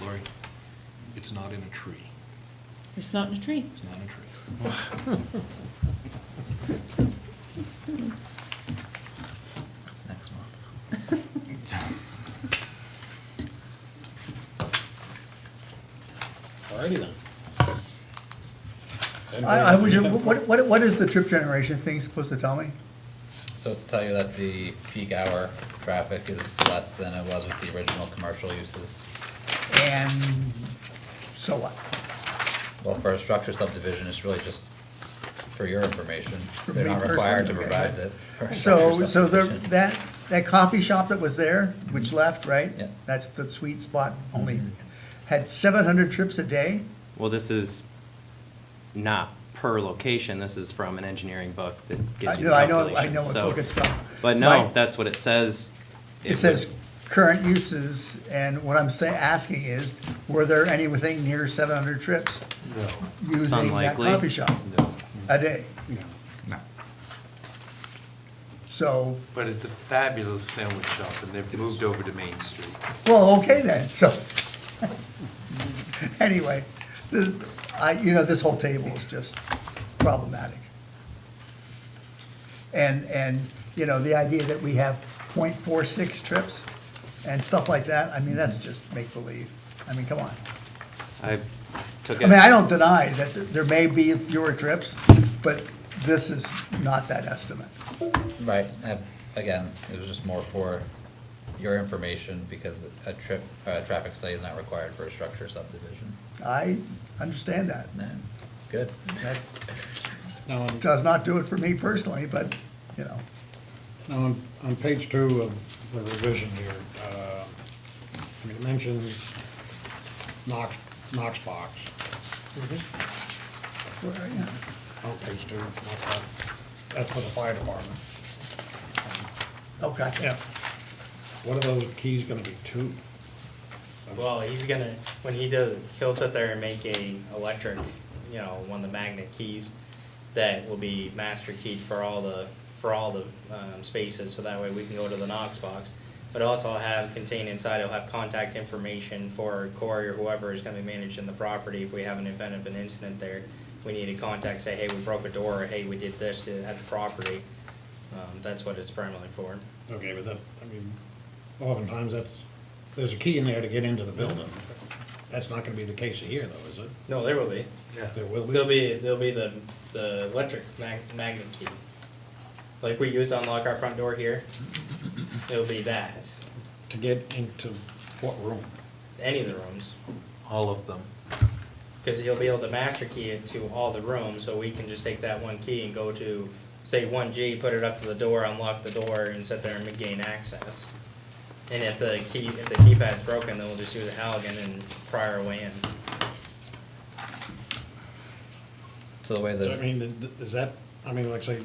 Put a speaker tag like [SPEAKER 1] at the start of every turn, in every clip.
[SPEAKER 1] Lori, it's not in a tree.
[SPEAKER 2] It's not in a tree.
[SPEAKER 1] It's not in a tree.
[SPEAKER 3] That's next month.
[SPEAKER 4] Alrighty then.
[SPEAKER 5] I, I would, ju- what, what, what is the trip generation thing supposed to tell me?
[SPEAKER 3] So it's to tell you that the peak hour traffic is less than it was with the original commercial uses.
[SPEAKER 5] And so what?
[SPEAKER 3] Well, for a structure subdivision, it's really just for your information.
[SPEAKER 5] For
[SPEAKER 3] They're
[SPEAKER 5] me
[SPEAKER 3] not required to
[SPEAKER 5] personally, okay.
[SPEAKER 3] provide that. for a
[SPEAKER 5] So,
[SPEAKER 3] structure
[SPEAKER 5] so there,
[SPEAKER 3] subdivision.
[SPEAKER 5] that, that coffee shop that was there, which left, right?
[SPEAKER 3] Mm-hmm. Yeah. Mm-hmm.
[SPEAKER 5] That's the sweet spot, only had seven hundred trips a day?
[SPEAKER 6] Well, this is not per location, this is from an engineering book that
[SPEAKER 5] I
[SPEAKER 6] gives you
[SPEAKER 5] know, I know, I
[SPEAKER 6] calculations,
[SPEAKER 5] know what
[SPEAKER 6] so-
[SPEAKER 5] book it's from.
[SPEAKER 6] But
[SPEAKER 5] My-
[SPEAKER 6] no, that's what it says.
[SPEAKER 5] It says current uses, and what I'm saying, asking is, were there anything near seven hundred trips? Using that
[SPEAKER 6] unlikely.
[SPEAKER 5] coffee shop a day?
[SPEAKER 3] No.
[SPEAKER 5] So,
[SPEAKER 7] But it's a fabulous sandwich shop, and they've moved over to Main Street.
[SPEAKER 5] Well, okay then, so, anyway, this, I, you know, this whole table is just problematic. And, and, you know, the idea that we have .46 trips and stuff like that, I mean, that's just make-believe. I mean, come on.
[SPEAKER 6] I took
[SPEAKER 5] I mean, I
[SPEAKER 6] it,
[SPEAKER 5] don't deny that th- there may be fewer trips, but this is not that estimate.
[SPEAKER 3] Right, and again, it was just more for your information because a trip, a traffic study is not required for a structure subdivision.
[SPEAKER 5] I understand that.
[SPEAKER 3] No, good.
[SPEAKER 5] That
[SPEAKER 8] Now, on,
[SPEAKER 5] does not do it for me personally, but, you know.
[SPEAKER 8] now, on, on page two of the revision here, uh, I mean, it mentions Knox, Knox box.
[SPEAKER 5] where are you?
[SPEAKER 8] Oh, page two, Knox box. that's for the fire department.
[SPEAKER 5] Oh, gotcha.
[SPEAKER 8] What are those keys gonna be, two?
[SPEAKER 9] Well, he's gonna, when he does, he'll sit there and make a electric, you know, one of the magnet keys that will be master keyed for all the, for all the, um, spaces, so that way we can go to the Knox box. But also have contained inside, it'll have contact information for Corey or whoever is gonna be managing the property if we have an event of an incident there. We need to contact, say, hey, we broke a door, or hey, we did this to, at the property. Um, that's what it's primarily for.
[SPEAKER 8] Okay, but that, I mean, oftentimes that's, there's a key in there to get into the building. That's not gonna be the case here though, is it?
[SPEAKER 9] No, there will be.
[SPEAKER 8] There will be.
[SPEAKER 9] There'll be, there'll be the, the electric mag- magnet key. Like we used to unlock our front door here. It'll be that,
[SPEAKER 8] To get into what room?
[SPEAKER 9] any of the rooms,
[SPEAKER 7] All of them.
[SPEAKER 9] because he'll be able to master key it to all the rooms, so we can just take that one key and go to, say, one G, put it up to the door, unlock the door, and sit there and gain access. And if the key, if the keypad's broken, then we'll just use a Halligan and pry our way in.
[SPEAKER 3] So the way
[SPEAKER 8] I
[SPEAKER 3] those,
[SPEAKER 8] mean, th- th- is that, I mean, like say,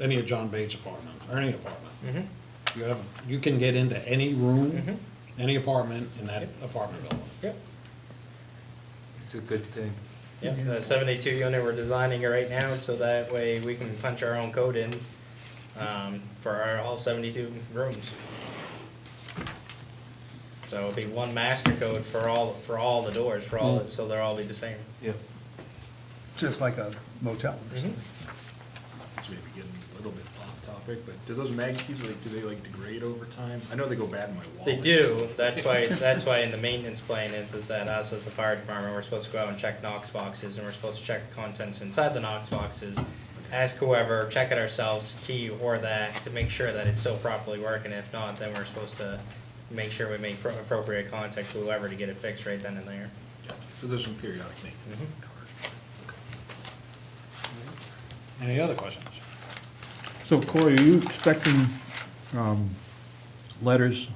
[SPEAKER 8] any of John Bates' apartments, or any apartment,
[SPEAKER 9] Mm-hmm.
[SPEAKER 8] you have, you can get into any room,
[SPEAKER 9] Mhm.
[SPEAKER 8] any apartment in that apartment building.
[SPEAKER 9] Yep.
[SPEAKER 7] It's a good thing.
[SPEAKER 9] Yep, the seventy-two unit, we're designing it right now, so that way we can punch our own code in, um, for our, all seventy-two rooms. So it'll be one master code for all, for all the doors, for all, so they'll all be the same.
[SPEAKER 7] Yep.
[SPEAKER 5] just like a motel or something.
[SPEAKER 1] It's maybe getting a little bit off topic, but do those mag keys, like, do they like degrade over time? I know they go bad in my wallet.
[SPEAKER 9] They do, that's why, that's why in the maintenance plan is, is that us as the fire department, we're supposed to go out and check Knox boxes, and we're supposed to check the contents inside the Knox boxes. Ask whoever, check it ourselves, key or that, to make sure that it's still properly working, if not, then we're supposed to make sure we make pro- appropriate contact to whoever to get it fixed right then and there.
[SPEAKER 1] Gotcha. So there's some periodic maintenance on
[SPEAKER 9] Mm-hmm.
[SPEAKER 1] the cars.
[SPEAKER 8] Any other questions?
[SPEAKER 10] So Corey, are you expecting um, letters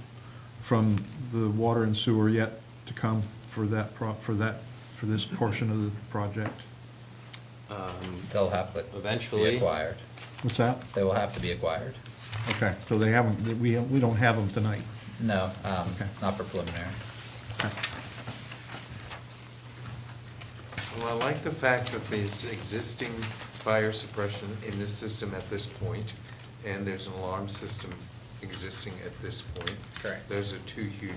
[SPEAKER 10] from the water and sewer yet to come for that, pro- for that, for this portion of the project?
[SPEAKER 6] um,
[SPEAKER 3] they'll have to be
[SPEAKER 6] Eventually.
[SPEAKER 3] acquired.
[SPEAKER 10] What's that?
[SPEAKER 3] They will have to be acquired.
[SPEAKER 10] Okay, so they haven't, we, we don't have them tonight.
[SPEAKER 3] No, um,
[SPEAKER 10] Okay.
[SPEAKER 3] not for preliminary.
[SPEAKER 7] Well, I like the fact that there's existing fire suppression in this system at this point, and there's an alarm system existing at this point.
[SPEAKER 9] Correct.
[SPEAKER 7] Those are two huge